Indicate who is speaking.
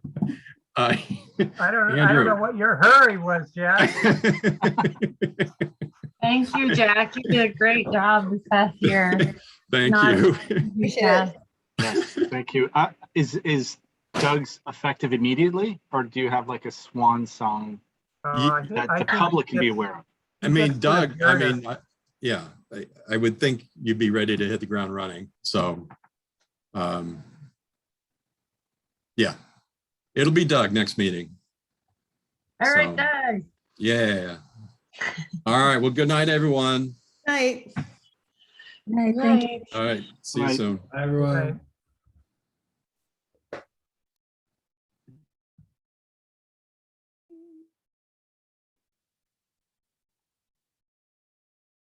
Speaker 1: Uh,
Speaker 2: I don't, I don't know
Speaker 1: Andrew.
Speaker 2: what your hurry was, Jack.
Speaker 3: Thank you, Jack. You did a great job this past year.
Speaker 1: Thank
Speaker 3: Not-
Speaker 1: you.
Speaker 4: Appreciate
Speaker 3: Yeah.
Speaker 5: Yes, thank you. Uh, is is Doug's effective immediately, or do you have like a swan song
Speaker 2: Uh, I think-
Speaker 5: that
Speaker 2: I
Speaker 5: the
Speaker 2: think
Speaker 5: public can be
Speaker 2: it's-
Speaker 5: aware of?
Speaker 1: I mean,
Speaker 2: That's good,
Speaker 1: Doug, I
Speaker 2: Meredith.
Speaker 1: mean, I- yeah, I, I would think you'd be ready to hit the ground running, so. um Yeah, it'll be Doug next meeting.
Speaker 3: All
Speaker 1: So-
Speaker 3: right, Doug.
Speaker 1: Yeah. All right, well, good night, everyone.
Speaker 4: Night.
Speaker 3: All right, thank you.
Speaker 1: All right, see you
Speaker 5: Right.
Speaker 1: soon.
Speaker 2: Right.
Speaker 6: Everyone.